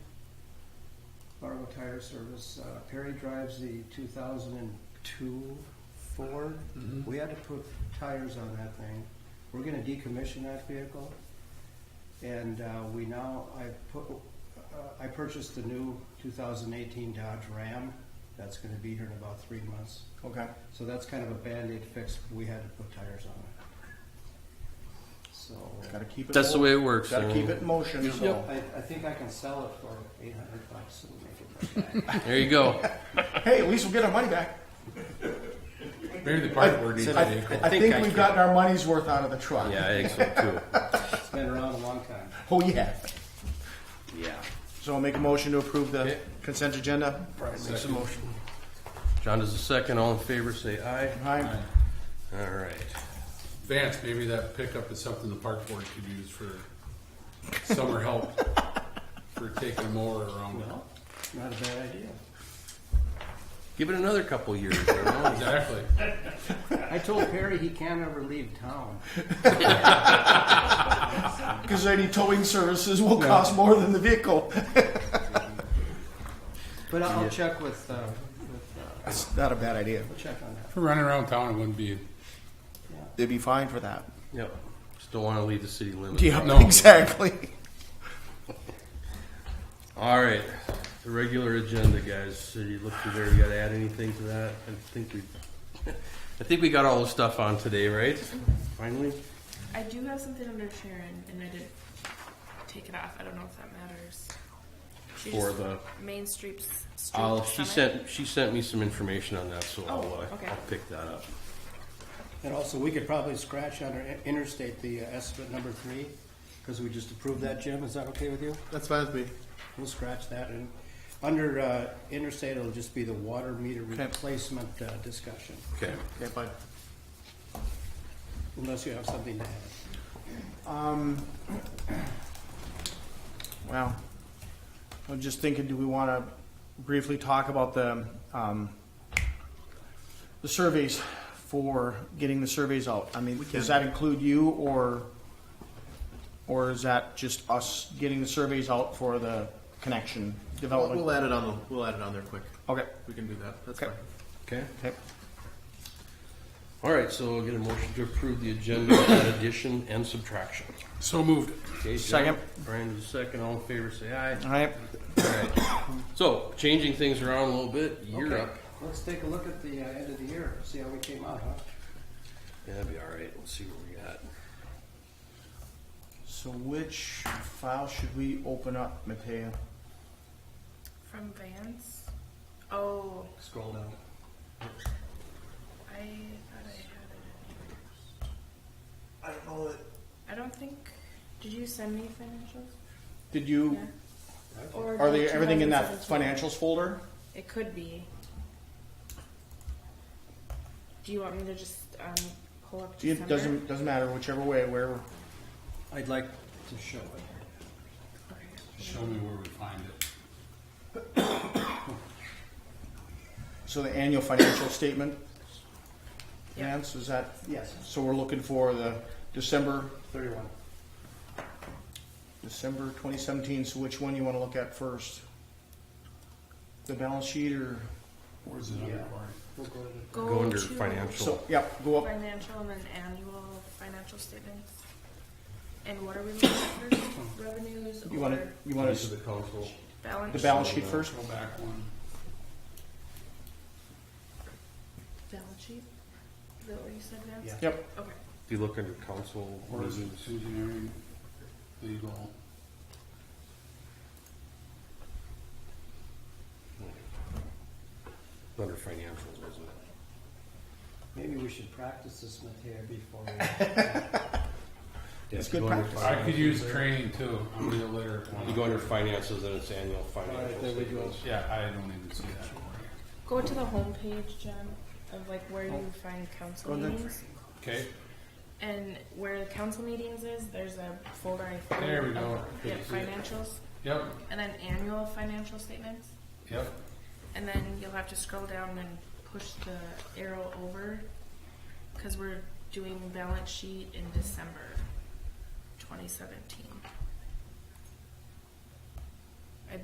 Tire Service. Uh, Perry drives the 2002 Ford. We had to put tires on that thing. We're going to decommission that vehicle. And uh, we now, I put, uh, I purchased the new 2018 Dodge Ram. That's going to be here in about three months. Okay. So that's kind of a Band-Aid fix. We had to put tires on it. So Gotta keep it. That's the mo- way it works, uh, Gotta so- keep it in motion, so. I, I think I can sell it for 800 bucks and make it back. There you go. Hey, at least we'll get our money back. Maybe the I, part where it I- is. I think we've gotten our money's worth out of the truck. Yeah, I think so too. It's been around a long time. Oh, yeah. Yeah. So I'll make a motion to approve the Okay. consent agenda. makes a motion. John does a second. All in favor, say aye. Aye. All right. Vance, maybe that pickup is something the park board could use for summer help for taking a mower around. Not a bad idea. Give it another couple years. you know? Exactly. I told Perry he can't ever leave town. Because any towing services will cost more than the vehicle. But I'll I'll check with, uh, with, uh, It's not a bad idea. we'll check on that. For running around town, it wouldn't be. They'd be fine for that. Yep. Just don't want to leave the city limits. Yeah, No. exactly. All right. The regular agenda, guys. So you look through there. You got to add anything to that? I think we, I think we got all the stuff on today, right? Finally. I do have something under Sharon, and I did take it off. I don't know if that matters. She For just- the- Main Streets. Street I'll, she Summit. sent she sent me some information on that, so I'll, Oh, uh, okay. I'll pick that up. And also, we could probably scratch under in- interstate the uh, estimate number three, because we just approved that, Jim. Is that okay with you? That's fine with me. We'll scratch that and under, uh, interstate, it'll just be the water meter Okay. replacement, uh, discussion, Okay. Okay, fine. unless you have something to add. Um, wow. I'm just thinking, do we want to briefly talk about the, um, the surveys for getting the surveys out? I mean, does that include you or, or is that just us getting the surveys out for the connection We'll, development? we'll add it on. The, we'll add it on there quick. Okay, We can do that. That's Okay. fine. Okay. okay. All right. So I'll get a motion to approve the agenda, with that addition and subtraction. So moved. Okay, John, Second. Brian does a second. All in favor, say aye. All right, Alright. So, changing things around a little bit, you're Okay, up. Let's take a look at the, uh, end of the year, see how we came out, huh? Yeah, that'd be alright. Let's see what we got. so which file should we open up, Matea? From Vance. Oh, Scroll down. I thought I had it. I don't know that. I don't think. Did you send me financials? Did you, Yeah. Or are did they, everything in that 2017? financials folder? It could be. Do you want me to just um, pull up? It December? doesn't, doesn't matter whichever way, where, I'd like to show it. Okay. Show me where we find it. so the annual financial statement. Yeah. Vance, is that, Yes, so we're looking for the December, thirty-one. December twenty seventeen, so which one you wanna look at first? The balance sheet or, Where's it under Yeah. part? We'll go to the Go, Go under to financial. so, yeah, go up, Financial and then annual financial statements. And what are we looking at first? Revenues you wanna, or you wanna, These are the council. balance? the balance sheet first? Go back one. Balance sheet? Is that what you said, Vance? Yeah. Yep, Okay. Do you look under council? Or is it meetings? engineering, legal? Under financials, wasn't it? Maybe we should practice this, Matea, before we, It's Yeah, you good go practice. under I could finances use there. training too. I'm gonna litter. You go under finances, then it's annual Alright, there financials. we go. Yeah, I don't even see that. Go to the homepage, John, of like where you find council Oh. Go there. meetings. Okay, And where the council meetings is, there's a folder I. There we go. of, Yeah, Good to see it. financials, yep, and then annual financial statements. yep. And then you'll have to scroll down and push the arrow over because we're doing balance sheet in December 2017.